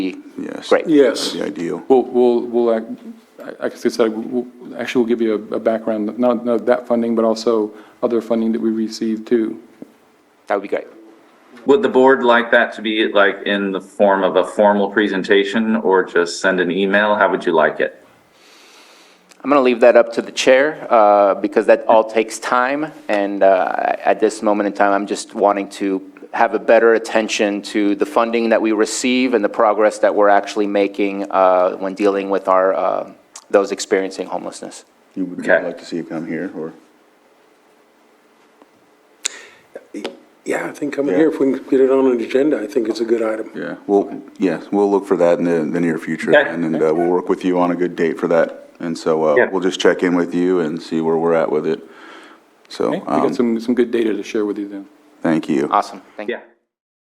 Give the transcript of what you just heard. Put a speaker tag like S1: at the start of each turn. S1: Yes.
S2: Great.
S3: Yes.
S1: The ideal.
S4: We'll, we'll, we'll, act- I I guess I said, we'll- we'll- actually, we'll give you a a background, not, not that funding, but also other funding that we received too.
S2: That would be great.
S5: Would the board like that to be like in the form of a formal presentation or just send an email? How would you like it?
S2: I'm going to leave that up to the chair, uh, because that all takes time, and uh, at this moment in time, I'm just wanting to have a better attention to the funding that we receive and the progress that we're actually making uh, when dealing with our, uh, those experiencing homelessness.
S1: You would
S5: Okay.
S1: like to see it come here, or?
S3: Yeah, I think coming here, if we can get it on an agenda, I think it's a good item.
S1: Yeah. Well, yes, we'll look for that in the, the near future,
S5: Okay.
S1: and, and uh, we'll work with you on a good date for that. And so, uh,
S5: Yeah.
S1: we'll just check in with you and see where we're at with it. So,
S4: Okay? We
S1: um,
S4: got some, some good data to share with you then.
S1: thank you.
S2: Awesome, thank you.
S5: Yeah.